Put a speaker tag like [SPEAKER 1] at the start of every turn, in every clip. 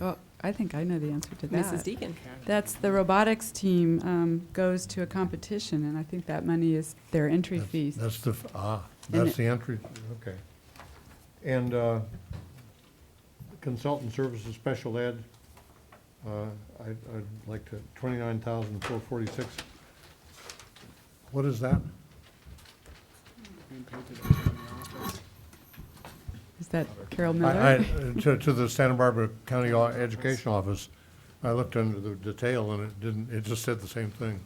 [SPEAKER 1] Oh, I think I know the answer to that.
[SPEAKER 2] Mrs. Deacon.
[SPEAKER 1] That's the robotics team um, goes to a competition, and I think that money is their entry
[SPEAKER 3] That's-
[SPEAKER 1] fees.
[SPEAKER 3] That's the, f- ah,
[SPEAKER 1] And
[SPEAKER 3] that's the entry, okay. And uh, consultant services, special ed, uh, I- I'd like to, twenty-nine thousand four forty-six. What is that?
[SPEAKER 1] Is that Carol Miller?
[SPEAKER 3] I, I, to, to the Santa Barbara County Au- Education Office, I looked under the detail and it didn't, it just said the same thing.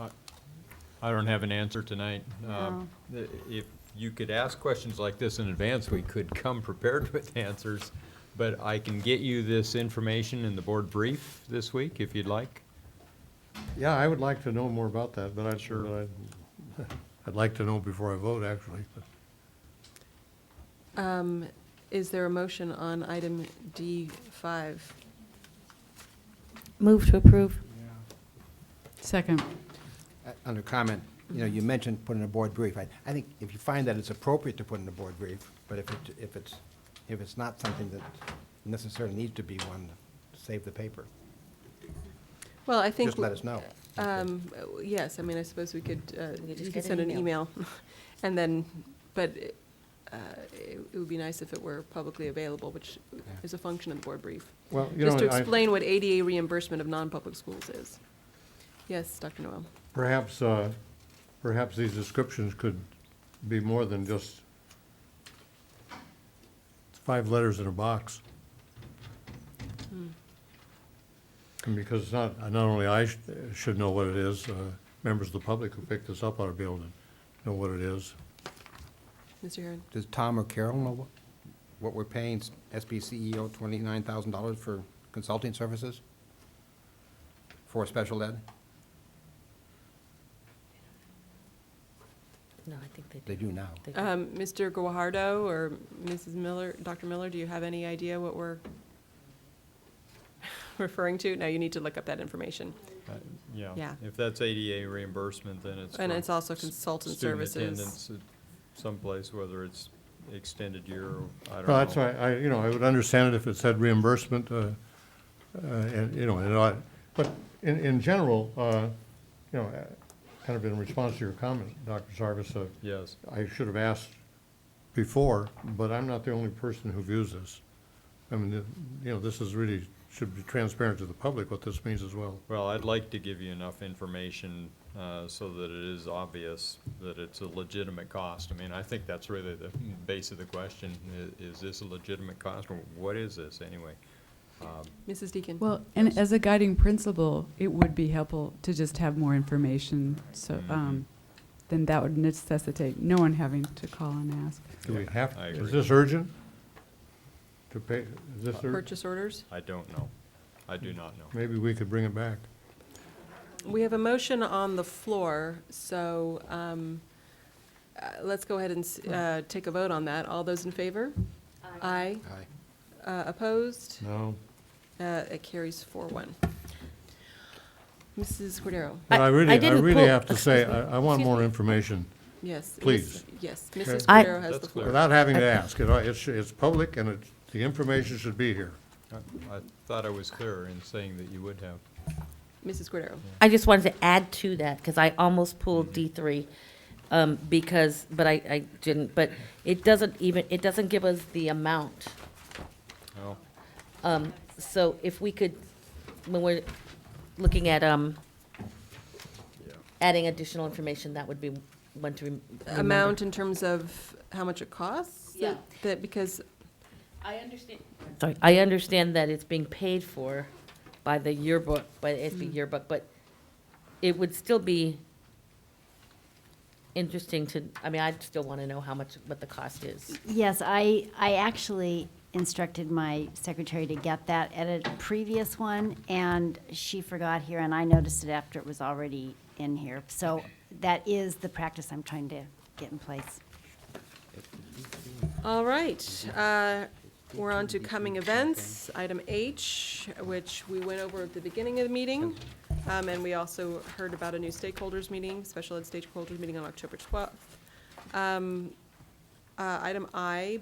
[SPEAKER 4] I don't have an answer tonight. Um, i- If you could ask questions like this in advance, we could come prepared with answers. But I can get you this information in the board brief this week, if you'd like.
[SPEAKER 3] Yeah, I would like to know more about that, but I'd sure, I'd- I'd like to know before I vote, actually.
[SPEAKER 2] Um, Is there a motion on item D5?
[SPEAKER 5] Move to approve.
[SPEAKER 1] Second.
[SPEAKER 6] Uh, Under comment, you know, you mentioned putting a board brief. I, I think if you find that it's appropriate to put in a board brief, but if it, if it's, if it's not something that necessarily needs to be one, save the paper.
[SPEAKER 2] Well, I think.
[SPEAKER 6] Just let us know.
[SPEAKER 2] Um, uh, Yes, I mean, I suppose we could, uh,
[SPEAKER 5] We could
[SPEAKER 2] you
[SPEAKER 5] just
[SPEAKER 2] could
[SPEAKER 5] get an
[SPEAKER 2] send an email.
[SPEAKER 5] email.
[SPEAKER 2] And then, but uh, it it would be nice if it were publicly available, which is a function of the board brief.
[SPEAKER 3] Well, you know,
[SPEAKER 2] Just to
[SPEAKER 3] I-
[SPEAKER 2] explain what ADA reimbursement of non-public schools is. Yes, Dr. Noel.
[SPEAKER 3] Perhaps, uh, perhaps these descriptions could be more than just five letters in a box. And Because it's not, not only I sh- should know what it is, uh, members of the public who pick this up ought to be able to know what it is.
[SPEAKER 2] Mr. Heron.
[SPEAKER 6] Does Tom or Carol know what, what we're paying SBCEO E twenty-nine thousand dollars for consulting services? For special ed?
[SPEAKER 5] No, I think
[SPEAKER 6] They do now.
[SPEAKER 5] They do.
[SPEAKER 2] Um, Mr. Guajardo or Mrs. Miller, Dr. Miller, do you have any idea what we're referring to? No, you need to look up that information.
[SPEAKER 4] Uh,
[SPEAKER 2] Yeah.
[SPEAKER 4] If that's ADA reimbursement, then it's.
[SPEAKER 2] And
[SPEAKER 4] for
[SPEAKER 2] it's also
[SPEAKER 4] s-
[SPEAKER 2] consultant
[SPEAKER 4] student
[SPEAKER 2] services.
[SPEAKER 4] attendance at Someplace, whether it's extended year or, I don't know.
[SPEAKER 3] Well, that's why, I, you know, I would understand it if it said reimbursement, uh, uh, and, you know, and I, but in, in general, uh, you know, uh, kind of in response to your comment, Dr. Sarvis, uh,
[SPEAKER 4] Yes.
[SPEAKER 3] I should have asked before, but I'm not the only person who views this. I mean, the- you know, this is really, should be transparent to the public what this means as well.
[SPEAKER 4] Well, I'd like to give you enough information uh, so that it is obvious that it's a legitimate cost. I mean, I think that's really the base of the question, i- is this a legitimate cost, or what is this anyway?
[SPEAKER 2] Mrs. Deacon?
[SPEAKER 1] Well, and as a guiding principle, it would be helpful to just have more information, so,
[SPEAKER 3] Mm-hmm.
[SPEAKER 1] um, then that would necessitate no one having to call and ask.
[SPEAKER 3] Do we have,
[SPEAKER 4] I
[SPEAKER 3] is
[SPEAKER 4] agree.
[SPEAKER 3] this urgent? To pay, is this, ur-
[SPEAKER 2] Purchase orders?
[SPEAKER 4] I don't know. I do not know.
[SPEAKER 3] maybe we could bring it back.
[SPEAKER 2] We have a motion on the floor, so um, uh, let's go ahead and s- uh, take a vote on that. All those in favor? Aye.
[SPEAKER 6] Aye.
[SPEAKER 2] Uh, Opposed?
[SPEAKER 3] No.
[SPEAKER 2] Uh, It carries four one. Mrs. Cordero?
[SPEAKER 3] But I
[SPEAKER 5] I- I
[SPEAKER 3] really, I
[SPEAKER 5] didn't
[SPEAKER 3] really
[SPEAKER 5] pull-
[SPEAKER 3] have to say,
[SPEAKER 5] excuse me,
[SPEAKER 3] I, I want
[SPEAKER 5] excuse
[SPEAKER 3] more
[SPEAKER 5] me.
[SPEAKER 3] information,
[SPEAKER 2] Yes. Miss-
[SPEAKER 3] Please.
[SPEAKER 2] Yes, Mrs.
[SPEAKER 5] I-
[SPEAKER 2] Cordero has the
[SPEAKER 4] That's
[SPEAKER 2] floor.
[SPEAKER 3] without having to ask. You know, It's, it's public and it, the information should be here.
[SPEAKER 4] I- I thought I was clearer in saying that you would have.
[SPEAKER 2] Mrs. Cordero?
[SPEAKER 5] I just wanted to add to that, because I almost pulled
[SPEAKER 3] Mm-hmm.
[SPEAKER 5] D three, um, because, but I, I didn't, but it doesn't even, it doesn't give us the amount. Um,
[SPEAKER 4] Oh,
[SPEAKER 5] So if we could, when we're looking at, um, adding additional information, that would be one to rem- remember.
[SPEAKER 2] Amount in terms of how much it costs?
[SPEAKER 5] Yeah.
[SPEAKER 2] That, because,
[SPEAKER 5] I understand. Sorry, I understand that it's being paid for by the yearbook, by the SB yearbook, but it would still be interesting to, I mean, I'd still want to know how much, what the cost is.
[SPEAKER 7] Yes, I, I actually instructed my secretary to get that at a previous one, and she forgot here, and I noticed it after it was already in here. So that is the practice I'm trying to get in place.
[SPEAKER 2] all right. uh, We're on to coming events, item H, which we went over at the beginning of the meeting. Um, And we also heard about a new stakeholders meeting, special ed stakeholders meeting on October 12th. Um, uh, Item I,